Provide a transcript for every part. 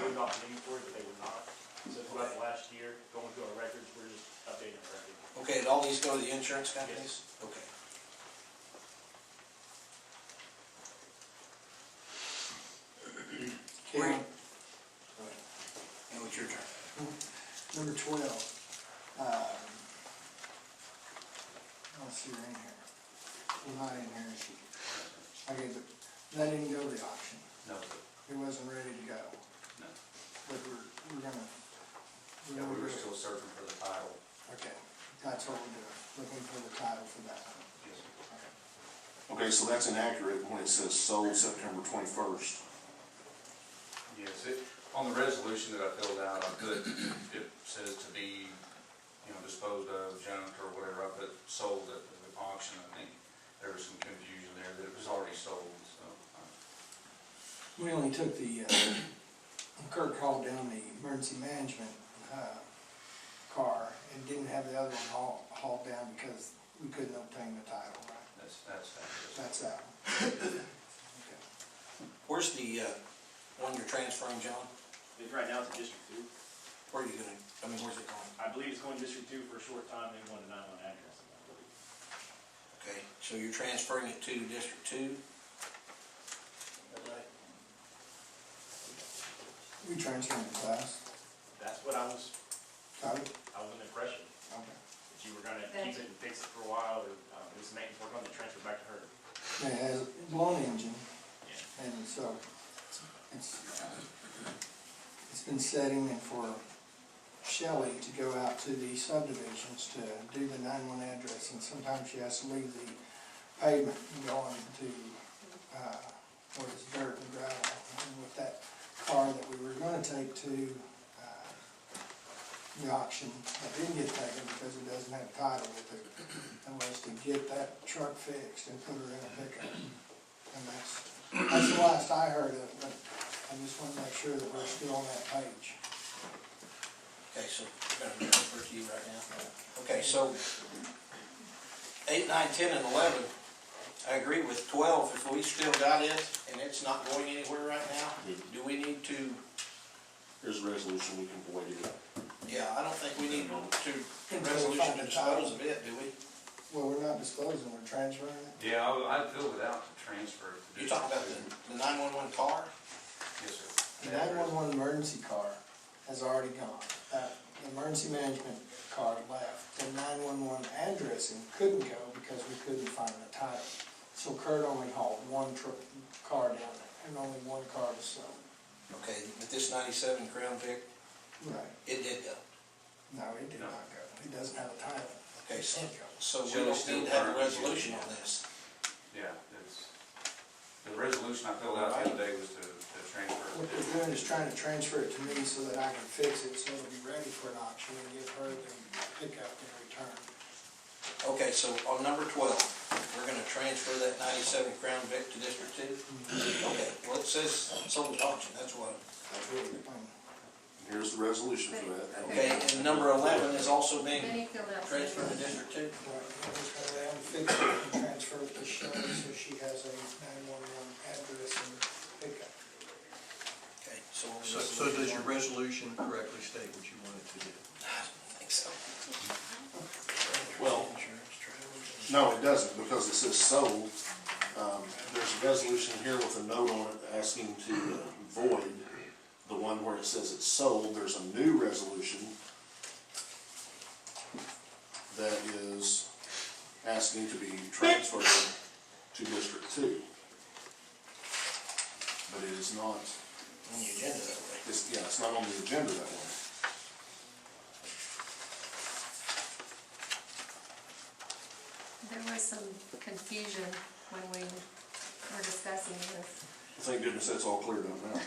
on inventory, but they were not. So throughout the last year, going through our records, we're just updating our records. Okay, and all these go to the insurance companies? Okay. Okay, Right. And it's your turn. number twelve. um, Let's see, right in here. Well, not in here. Okay, but that didn't go to auction. No, It wasn't ready to go, no. but we're, we're gonna. Yeah, we were gonna- still searching for the title. Okay, that's what we're doing, looking for the title for that one. Okay. Okay, so that's inaccurate when it says sold September twenty-first. Yes, it, on the resolution that I filled out, I put, it says to be, you know, disposed of, junked or whatever, I put sold at the auction, I think. There was some confusion there that it was already sold, so. uh, We only took the, uh, Kirk hauled down the emergency management, uh, car and didn't have the other one hauled, hauled down because we couldn't obtain the title, right? That's, that's, that's, That's that one. Okay. Where's the, uh, one you're transferring, John? It's right now to District Two. Where are you gonna, I mean, where's it going? I believe it's going to District Two for a short time, then going to nine-one address. I believe. Okay, so you're transferring it to District Two? We transferred the class, That's what I was, title, I was under the impression, okay. that you were gonna keep it and fix it for a while, or, um, this maintenance work on the transfer back to her. It has blown engine Yeah. and so it's, it's been setting and for Shelley to go out to the subdivisions to do the nine-one address, and sometimes she has to leave the pavement and go on to, uh, where it's dirt and gravel. And with that car that we were gonna take to, uh, the auction, that didn't get taken because it doesn't have title with it, and was to get that truck fixed and put her in a pickup. And that's, that's the last I heard of, it, but I just wanna make sure that we're still on that page. Okay, so we're gonna transfer to you right now. Okay, so eight, nine, ten, and eleven, I agree with twelve, if we still got it and it's not going anywhere right now, do we need to, There's a resolution, we can void it. yeah, I don't think we need to, Until we resolution find to the dispose title. of it, do we? Well, we're not disclosing, we're transferring it. yeah, I, I filled it out to transfer. it to You talking about District the, the nine-one-one car? Two. Yes, sir. The nine-one-one emergency car has already gone. That emergency management car left. The nine-one-one addressing couldn't go because we couldn't find the title. So Kurt only hauled one truck, car down there, and only one car was sold. Okay, but this ninety-seven Crown Vic, Right. it did go. No, it did not go. It doesn't have a title. Okay, so, It goes. so we So it's don't still need to have a currently resolution used. on this. Yeah, it's, the resolution I filled out the other day was to, to transfer. What it to they're doing is trying to transfer it to me so that I can fix it, so it'll be ready for an auction and give her the pickup and return. Okay, so on number twelve, we're gonna transfer that ninety-seven Crown Vic to District Two? Okay, well, it says sold at auction, that's what. Um, Here's the resolution for that. Okay, and number eleven is also being Benny filled out. transferred to District Two? Right, I'm just gonna let him fix it and transfer it to Shelley so she has a nine-one-one address and pickup. Okay, so. we'll So, just- so does your resolution correctly state what you want it to do? I don't think so. Well, no, it doesn't, because it says sold. Um, there's a resolution here with a note on it asking to uh, void the one where it says it's sold. There's a new resolution that is asking to be transferred to District Two. But it is not, On the agenda that way. it's, yeah, it's not on the agenda that way. There was some confusion when we were discussing this. Thank goodness that's all cleared up now.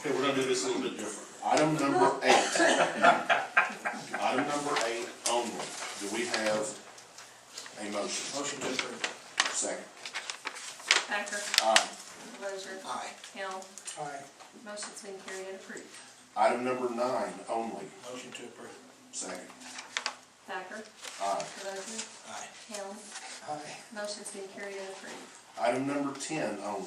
Okay, we're gonna do this a little bit different. Item number eight. Item number eight only. Do we have a motion? Motion to approve. Second. Thacker, Aye. Delozer, Aye. Hill, Aye. motion's been carried and approved. Item number nine only. Motion to approve. Second. Thacker, Aye. Delozer, Aye. Hill, Aye. motion's been carried and approved. Item number ten only.